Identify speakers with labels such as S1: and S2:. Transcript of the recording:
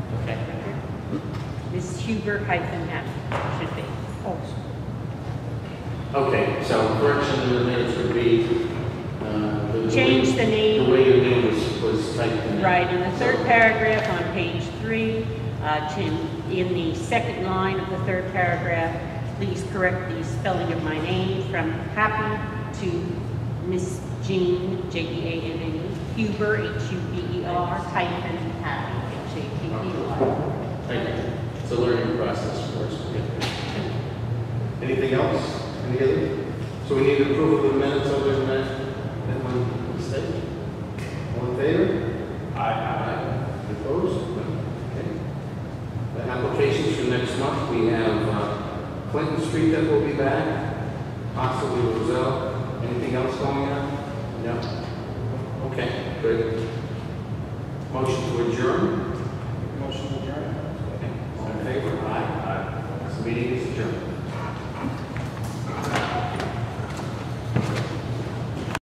S1: Huber hyphen F should be.
S2: Okay, so correction in the minutes would be, uh, the. the way-
S1: Change the name.
S2: The way your name was, was typed in.
S1: Right, in the third paragraph on page three, uh, Jim, in the second line of the third paragraph, please correct the spelling of my name from Happy to Miss Jean, E J-E-A-N-N, Huber, H-U-B-E-R, E hyphen Happy, H-A-P-P-Y.
S2: Thank you. It's a learning process for us.
S3: Anything else? Any other?
S2: So we need approval of the minutes other than that, that one mistake?
S3: All in favor?
S2: Aye.
S3: Opposed?
S2: Okay. The applications for next month, we have uh, Clinton Street that will be back, possibly Roselle. Anything else going on? No? Okay, good. Motion to adjourn?